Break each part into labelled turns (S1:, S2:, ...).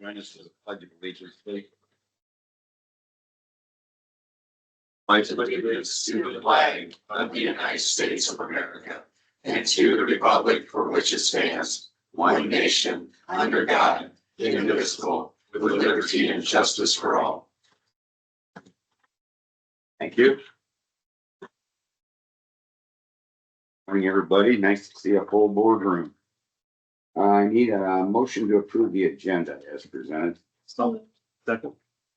S1: Join us for the pledge of allegiance, please. My
S2: allegiance to the flag of the United States of America and to the republic for which it stands, one nation, under God, indivisible, with liberty and justice for all.
S1: Thank you. Morning, everybody. Nice to see a full boardroom. I need a motion to approve the agenda as presented.
S3: So, second.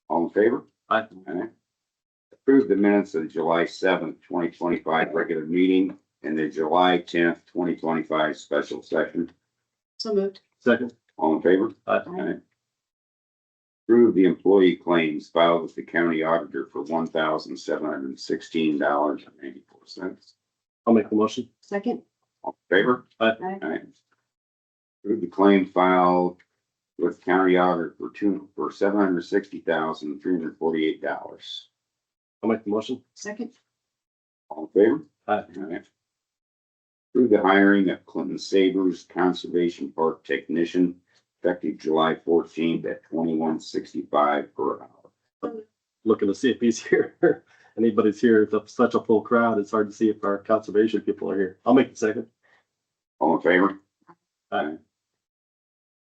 S1: All in favor?
S3: Aye.
S1: Aye. Approve the minutes of the July seventh, twenty twenty-five regular meeting and the July tenth, twenty twenty-five special session.
S4: So moved.
S3: Second.
S1: All in favor?
S3: Aye.
S1: Aye. Approve the employee claims filed with the county auditor for one thousand seven hundred and sixteen dollars and ninety-four cents.
S3: I'll make the motion.
S4: Second.
S1: All in favor?
S3: Aye.
S4: Aye.
S1: Approve the claim filed with county auditor for two, for seven hundred sixty thousand, three hundred forty-eight dollars.
S3: I'll make the motion.
S4: Second.
S1: All in favor?
S3: Aye.
S1: Aye. Approve the hiring of Clinton Sabers Conservation Park Technician effective July fourteenth at twenty-one sixty-five per hour.
S3: Looking to see if he's here. Anybody's here. It's a- such a full crowd. It's hard to see if our conservation people are here. I'll make the second.
S1: All in favor?
S3: Aye.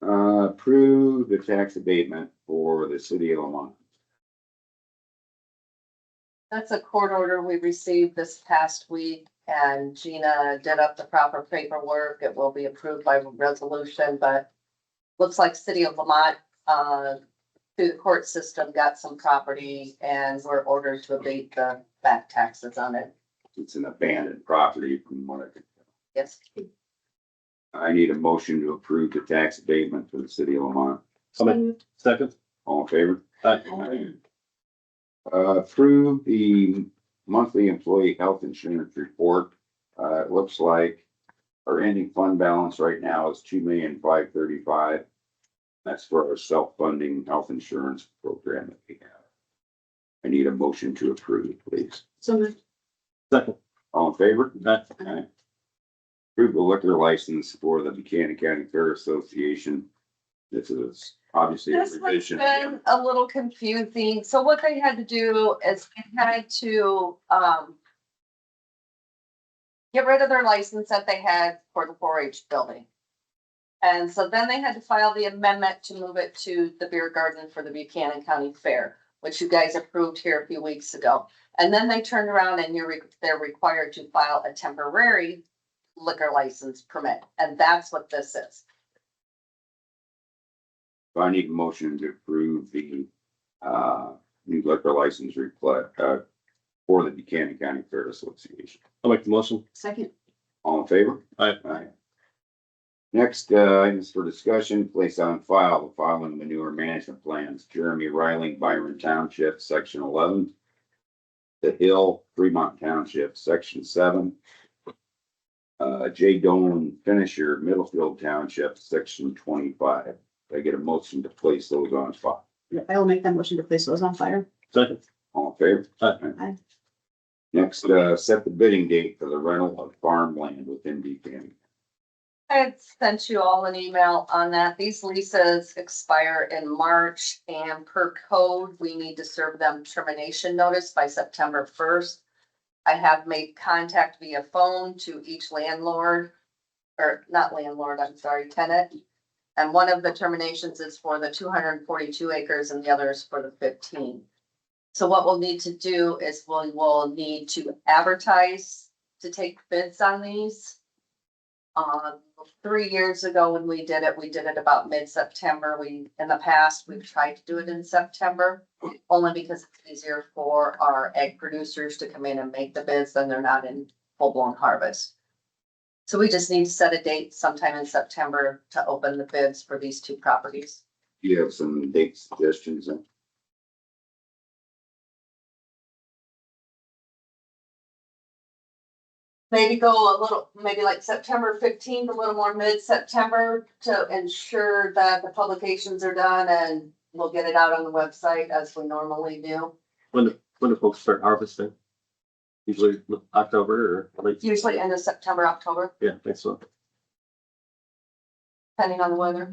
S1: Uh, approve the tax abatement for the city of Lamont.
S5: That's a court order we received this past week and Gina did up the proper paperwork. It will be approved by resolution, but looks like City of Lamont, uh, through the court system, got some property and were ordered to abate the back taxes on it.
S1: It's an abandoned property from what I can.
S5: Yes,
S1: I need a motion to approve the tax abatement for the city of Lamont.
S3: I'll
S4: So
S3: make
S4: moved.
S3: second.
S1: All in favor?
S3: Aye.
S1: Aye. Uh, approve the monthly employee health insurance report. Uh, it looks like our ending fund balance right now is two million five thirty-five. That's for our self-funding health insurance program that we have. I need a motion to approve, please.
S4: So moved.
S3: Second.
S1: All in favor?
S3: Aye.
S1: Aye. Approve the liquor license for the Buchanan County Fair Association. This is obviously a
S5: This has
S1: revision.
S5: been a little confusing. So what they had to do is they had to, um, get rid of their license that they had for the four H building. And so then they had to file the amendment to move it to the beer garden for the Buchanan County Fair, which you guys approved here a few weeks ago. And then they turned around and you're, re- they're required to file a temporary liquor license permit. And that's what this is.
S1: So I need a motion to approve the, uh, new liquor license replat, uh, for the Buchanan County Fair Association.
S3: I'll make the motion.
S4: Second.
S1: All in favor?
S3: Aye.
S1: Aye. Next, uh, items for discussion, place on file the following manure management plans, Jeremy Riley, Byron Township, section eleven. The Hill, Fremont Township, section seven. Uh, J Dolan Finisher, Middlefield Township, section twenty-five. Did I get a motion to place those on file.
S4: I will make that motion to place those on fire.
S3: Second.
S1: All in favor?
S3: Aye.
S4: Aye.
S1: Next, uh, set the bidding date for the rental of farmland within Buchanan.
S5: I had sent you all an email on that. These leases expire in March and per code, we need to serve them termination notice by September first. I have made contact via phone to each landlord, or not landlord, I'm sorry, tenant. And one of the terminations is for the two hundred and forty-two acres and the other is for the fifteen. So what we'll need to do is we will need to advertise to take bids on these. Um, three years ago when we did it, we did it about mid-September. We, in the past, we've tried to do it in September. Only because it's easier for our egg producers to come in and make the bids than they're not in full-blown harvest. So we just need to set a date sometime in September to open the bids for these two properties.
S1: Do you have some date suggestions?
S5: Maybe go a little, maybe like September fifteenth, a little more mid-September to ensure that the publications are done and we'll get it out on the website as we normally do.
S3: When, do- when do folks start harvesting? Usually October or late?
S5: usually end of September, October,
S3: Yeah, thanks so.
S5: depending on the weather.